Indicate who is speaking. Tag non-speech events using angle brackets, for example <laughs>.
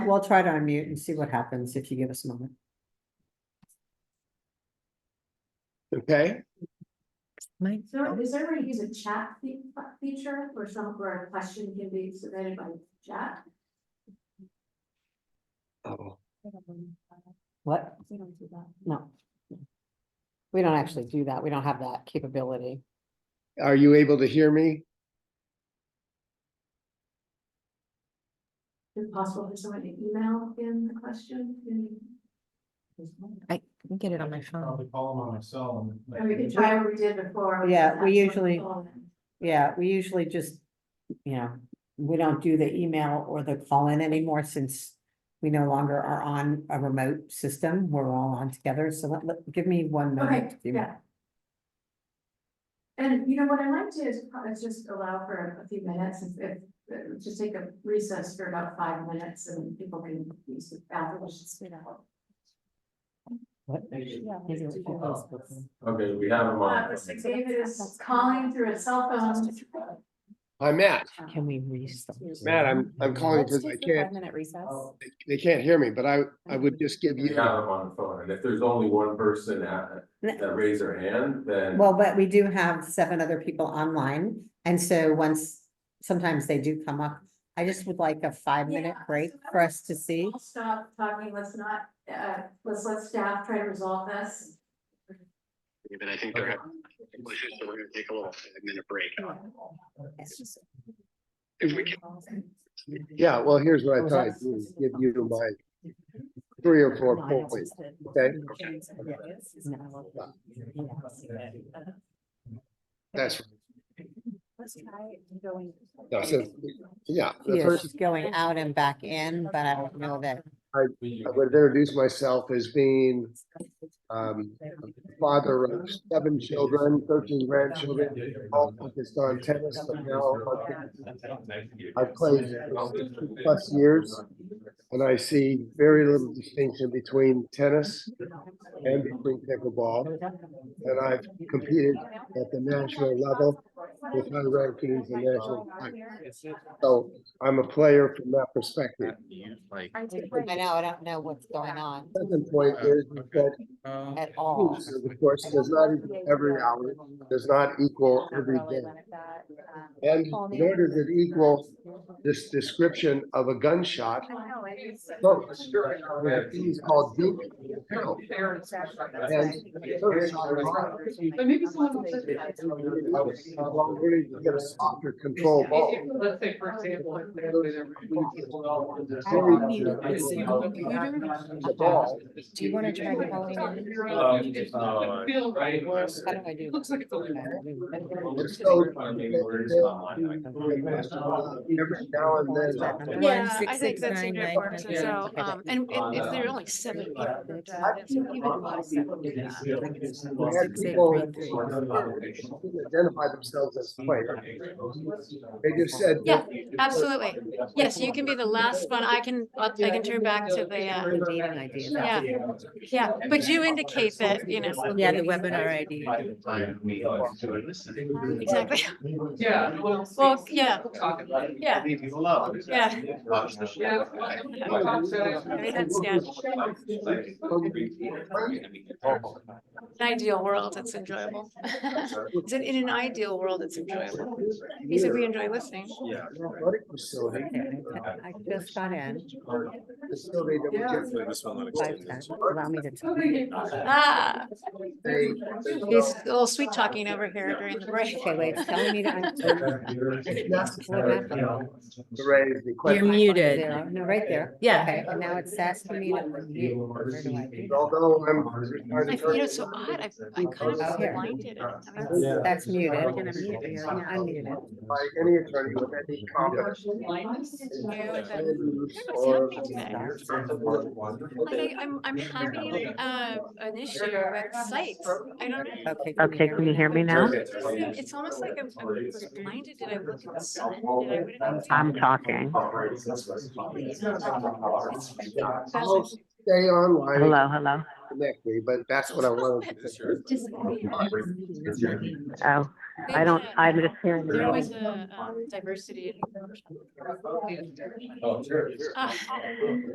Speaker 1: we'll try to unmute and see what happens if you give us a moment.
Speaker 2: Okay,
Speaker 1: Mike?
Speaker 3: Is there, is there a way to use a chat fe- feature or some, where a question can be submitted by chat?
Speaker 2: oh,
Speaker 1: What?
Speaker 3: We don't do that.
Speaker 1: No. We don't actually do that. We don't have that capability.
Speaker 2: are you able to hear me?
Speaker 3: Is it possible for someone to email in the question?
Speaker 4: I can get it on my phone.
Speaker 5: Probably call them on my cell
Speaker 3: Or we could
Speaker 5: and.
Speaker 3: try what we did before. which
Speaker 1: Yeah,
Speaker 3: is
Speaker 1: we
Speaker 3: have someone
Speaker 1: usually-
Speaker 3: call in.
Speaker 1: Yeah, we usually just, you know, we don't do the email or the call in anymore since we no longer are on a remote system. We're all on together. So let, let- give me one moment.
Speaker 3: Okay,
Speaker 1: to do that.
Speaker 3: yeah. And you know, what I like to is pro- is just allow for a few minutes, if- if, uh, just take a recess for about five minutes and people can use the bathroom. which is-
Speaker 1: What?
Speaker 5: Okay, we have them
Speaker 3: Uh, Mr. David is calling through his cell phone.
Speaker 2: Hi, Matt.
Speaker 1: Can we restart?
Speaker 2: Matt, I'm, I'm calling because I can't, Oh.
Speaker 4: Minute recess.
Speaker 2: they can't hear me, but I, I would just give you,
Speaker 5: them on the phone, and if there's only one person that, that raised their hand, then.
Speaker 1: Well, but we do have seven other people online, and so once, sometimes they do come up. I just would like a five-minute
Speaker 3: Yeah,
Speaker 1: break
Speaker 3: so that
Speaker 1: for
Speaker 3: was-
Speaker 1: us to see.
Speaker 3: I'll Stop talking, let's not, uh, let's let staff try to resolve this.
Speaker 6: But I think they're having issues, so we're gonna take a little five minute break. If we can,
Speaker 2: yeah, well, here's what I thought, I'd do is give you my three or four points. okay? That's,
Speaker 4: Let's try going.
Speaker 2: No, so- yeah, the
Speaker 1: Yeah,
Speaker 2: first,
Speaker 1: she's going out and back in, but I don't know that,
Speaker 2: I would introduce myself as being, um, father of seven children, thirteen grandchildren, all focused on tennis, but now I've played plus years. And I see very little distinction between tennis and between pickleball. And I've competed at the national level with high rankings and national. titles. So I'm a player from that perspective.
Speaker 1: I know, I don't know what's going on
Speaker 2: Second point is that
Speaker 1: at all.
Speaker 2: news, of course, does not equal every hour, does not equal every day.
Speaker 4: Um,
Speaker 2: And nor does it equal this description of a gunshot. No, it's called deep. No.
Speaker 7: But maybe someone will say-
Speaker 2: I'm ready to get a softer control ball.
Speaker 7: If- Let's say, for example, if there was a-
Speaker 2: The ball,
Speaker 4: Uh-huh. Do you wanna try calling
Speaker 5: Um,
Speaker 7: It's
Speaker 5: uh,
Speaker 7: not feel right.
Speaker 1: How do I do
Speaker 7: It looks like it's a little
Speaker 2: it's so- uh, Every now and then. uh,
Speaker 8: Yeah,
Speaker 4: six,
Speaker 8: I think
Speaker 4: six,
Speaker 8: that's
Speaker 4: nine, nine,
Speaker 8: important
Speaker 4: nine,
Speaker 8: as well,
Speaker 4: nine.
Speaker 8: um, and and if there are only seven people. that drive, it's even less than we do that.
Speaker 2: We had people who Identify themselves as players. They just said.
Speaker 8: Yeah, absolutely. Yes, you can be the last one, I can, I can turn back to the, uh, yeah, yeah, but you indicate that, you know,
Speaker 4: Yeah, the webinar ID.
Speaker 8: exactly,
Speaker 7: Yeah.
Speaker 8: Well, yeah.
Speaker 7: Talk about it.
Speaker 8: yeah,
Speaker 6: leave you alone.
Speaker 8: yeah.
Speaker 7: Yeah.
Speaker 8: that's- yeah. In an ideal world, it's enjoyable. <laughs> It's in, in an ideal world, it's enjoyable. He said we enjoy listening.
Speaker 5: Yeah.
Speaker 2: Athletic facility.
Speaker 1: I just got in,
Speaker 2: Facility that we just-
Speaker 5: This one looks
Speaker 1: five ten, allow me to. talk.
Speaker 8: Ah,
Speaker 2: they-
Speaker 8: he's a little sweet talking over here during the break.
Speaker 1: Okay, wait, it's telling me to.
Speaker 8: <laughs>
Speaker 1: un-
Speaker 2: To raise the
Speaker 4: You're
Speaker 2: question.
Speaker 4: muted.
Speaker 1: Zero. No, right there.
Speaker 4: Yeah.
Speaker 1: Okay, and now it's asking me to unmute. Where do I do that?
Speaker 2: Although I'm.
Speaker 8: I feel it's so odd, I, I kind of
Speaker 1: Okay.
Speaker 8: blinded it. I mean,
Speaker 1: That's- That's muted.
Speaker 5: We're
Speaker 4: gonna mute you.
Speaker 1: Yeah, I muted it.
Speaker 2: By any attorney with any competence.
Speaker 8: what's
Speaker 2: Or-
Speaker 8: happening today.
Speaker 2: Okay.
Speaker 1: <laughs>
Speaker 8: Like, I, I'm, I'm having, uh, an issue with sights. I don't know.
Speaker 1: Okay.
Speaker 4: Okay, can you hear me now?
Speaker 8: It's just like- It's almost like I'm, I was blinded. Did I look at the sun? Did I? what did I do?
Speaker 4: I'm talking.
Speaker 2: I'll Stay online. and
Speaker 4: Hello, hello.
Speaker 2: Connect me, but that's what I wanted. to say.
Speaker 4: Oh, I don't, I'm just hearing.
Speaker 8: There was a um, diversity. in- Ah.